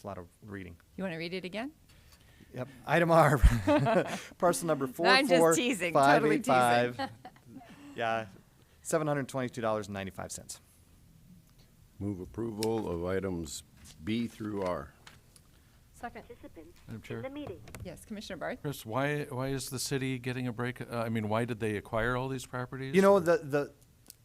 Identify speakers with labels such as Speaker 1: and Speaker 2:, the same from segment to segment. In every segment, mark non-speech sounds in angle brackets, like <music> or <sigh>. Speaker 1: It's a lot of reading.
Speaker 2: You want to read it again?
Speaker 1: Yep, item R, <laughs> parcel number four
Speaker 2: <laughs> I'm just
Speaker 1: four
Speaker 2: teasing,
Speaker 1: five
Speaker 2: totally
Speaker 1: eight five.
Speaker 2: <laughs>
Speaker 1: Yeah, seven hundred twenty-two dollars and ninety-five cents.
Speaker 3: Move approval of items B through R.
Speaker 4: Second.
Speaker 5: participants
Speaker 6: Madam
Speaker 5: in
Speaker 6: Chair,
Speaker 5: the meeting.
Speaker 2: Yes, Commissioner Barth?
Speaker 6: Chris, why, why is the city getting a break? Uh, I mean, why did they acquire all these properties?
Speaker 1: You know,
Speaker 6: or-
Speaker 1: the, the,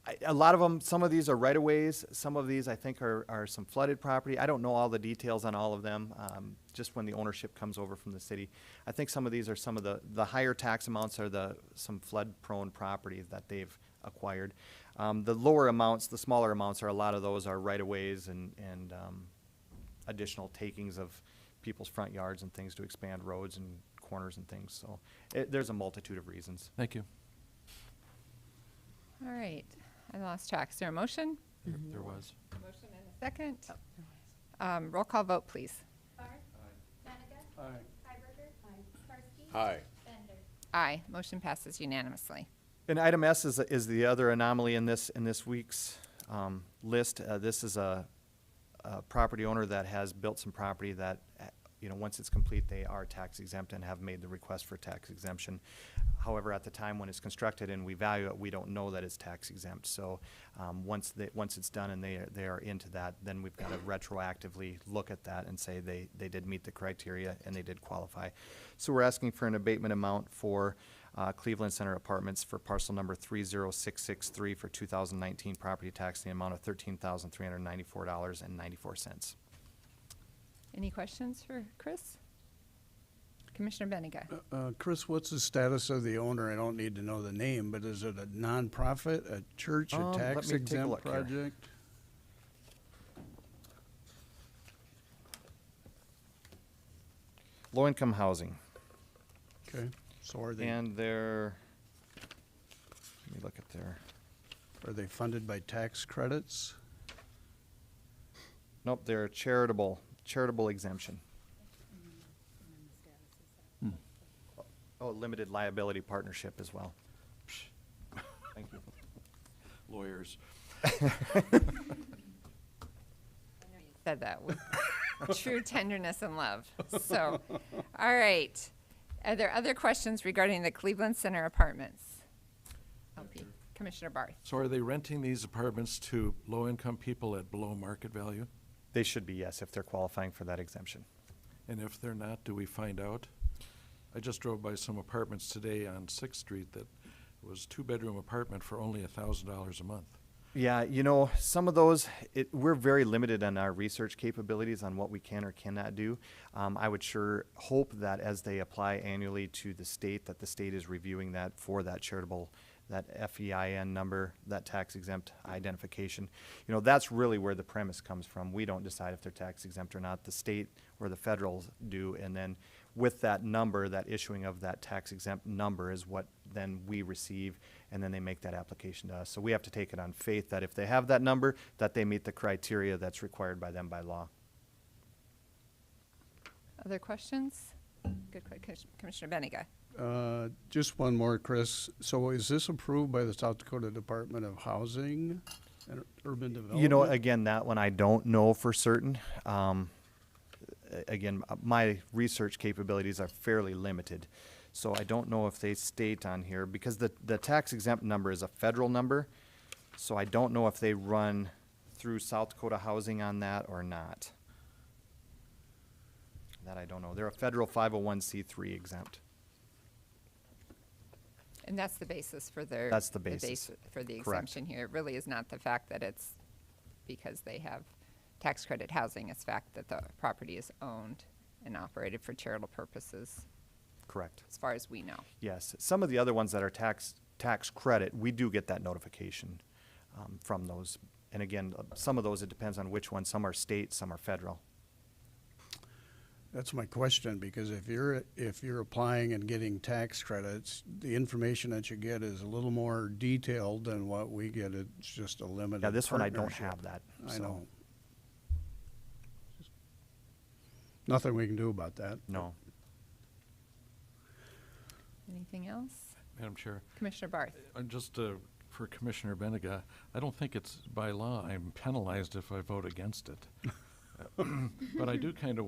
Speaker 1: I- a lot of them, some of these are right of ways, some of these I think are, are some flooded property. I don't know all the details on all of them, um, just when the ownership comes over from the city. I think some of these are some of the, the higher tax amounts are the, some flood prone property that they've acquired. Um, the lower amounts, the smaller amounts are, a lot of those are right of ways and, and, um, additional takings of people's front yards and things to expand roads and corners and things, so. It, there's a multitude of reasons.
Speaker 6: Thank you.
Speaker 2: All right, I lost track. Is there a motion?
Speaker 6: There- There was.
Speaker 2: Motion and a second. Um, Roll call vote, please.
Speaker 7: Barth. Benega. Hiberger. Karski.
Speaker 3: Aye.
Speaker 7: Bender.
Speaker 2: Aye, motion passes unanimously.
Speaker 1: And item S is, is the other anomaly in this, in this week's um, list. Uh, This is a, a property owner that has built some property that, uh, you know, once it's complete, they are tax exempt and have made the request for tax exemption. However, at the time when it's constructed and we value it, we don't know that it's tax exempt. So um, once they, once it's done and they, are- they are into that, then we've got to retroactively look at that and say they, they did meet the criteria and they did qualify. So we're asking for an abatement amount for uh, Cleveland Center Apartments for parcel number 30663 for 2019 property tax in the amount of $13,394.94.
Speaker 2: Any questions for Chris? Commissioner Benega?
Speaker 8: Uh, Chris, what's the status of the owner? I don't need to know the name, but is it a nonprofit, a church,
Speaker 1: Um,
Speaker 8: a
Speaker 1: let
Speaker 8: tax
Speaker 1: me take a look
Speaker 8: exempt
Speaker 1: here.
Speaker 8: project?
Speaker 1: Low-income housing,
Speaker 8: Okay, so are they,
Speaker 1: and they're, let me look at their,
Speaker 8: are they funded by tax credits?
Speaker 1: nope, they're charitable, charitable exemption. Oh, limited liability partnership as well. Thank you.
Speaker 6: Lawyers.
Speaker 2: Said that with true tenderness and love. So, all right. Are there other questions regarding the Cleveland Center Apartments? LP. Commissioner Barth?
Speaker 6: So are they renting these apartments to low-income people at below market value?
Speaker 1: They should be, yes, if they're qualifying for that exemption.
Speaker 6: And if they're not, do we find out? I just drove by some apartments today on Sixth Street that was two-bedroom apartment for only a thousand dollars a month.
Speaker 1: Yeah, you know, some of those, it, we're very limited on our research capabilities on what we can or cannot do. Um, I would sure hope that as they apply annually to the state, that the state is reviewing that for that charitable, that FEIN number, that tax exempt identification. You know, that's really where the premise comes from. We don't decide if they're tax exempt or not. The state or the federals do, and then with that number, that issuing of that tax exempt number is what then we receive, and then they make that application to us. So we have to take it on faith that if they have that number, that they meet the criteria that's required by them by law.
Speaker 2: Other questions? Good, que- Commis- Commissioner Benega?
Speaker 8: Uh, Just one more, Chris. So is this approved by the South Dakota Department of Housing and Urban Development?
Speaker 1: You know, again, that one I don't know for certain. Um, a- again, uh, my research capabilities are fairly limited. So I don't know if they state on here, because the, the tax exempt number is a federal number. So I don't know if they run through South Dakota Housing on that or not. That I don't know. They're a federal five oh one C three exempt.
Speaker 2: And that's the basis for their.
Speaker 1: That's the basis.
Speaker 2: basi- For the
Speaker 1: Correct.
Speaker 2: exemption here. It really is not the fact that it's because they have tax credit housing. It's fact that the property is owned and operated for charitable purposes,
Speaker 1: Correct.
Speaker 2: as far as we know.
Speaker 1: Yes, some of the other ones that are tax, tax credit, we do get that notification um, from those. And again, uh, some of those, it depends on which one. Some are state, some are federal.
Speaker 8: That's my question, because if you're, if you're applying and getting tax credits, the information that you get is a little more detailed than what we get. It's just a limited
Speaker 1: Yeah, this one I don't
Speaker 8: partnership.
Speaker 1: have that.
Speaker 8: I
Speaker 1: so,
Speaker 8: know. Nothing we can do about that.
Speaker 1: No.
Speaker 2: Anything else?
Speaker 6: Madam Chair,
Speaker 2: Commissioner Barth?
Speaker 6: Uh, just uh, for Commissioner Benega, I don't think it's by law I'm penalized if I vote against it. Uh, But I do kind of